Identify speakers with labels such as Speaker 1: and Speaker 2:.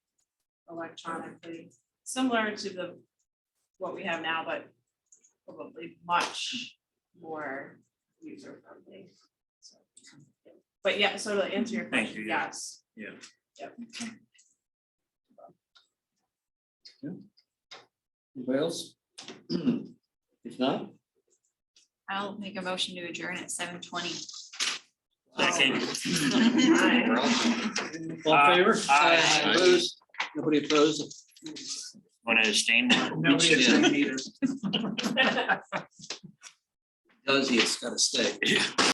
Speaker 1: electronically, similar to the, what we have now, but probably much more user friendly. But yeah, so to answer your
Speaker 2: Thank
Speaker 1: question,
Speaker 2: you, yeah.
Speaker 1: yes.
Speaker 2: Yeah.
Speaker 1: Yep.
Speaker 3: Anybody else? If not,
Speaker 4: I'll make a motion to adjourn at seven twenty.
Speaker 2: Second.
Speaker 1: Hi.
Speaker 3: all in
Speaker 2: Aye.
Speaker 3: favor?
Speaker 2: Aye.
Speaker 3: Opposed? Nobody opposed?
Speaker 2: Want to abstain?
Speaker 3: Nobody abstained
Speaker 2: either.
Speaker 3: Does he, it's gotta stay.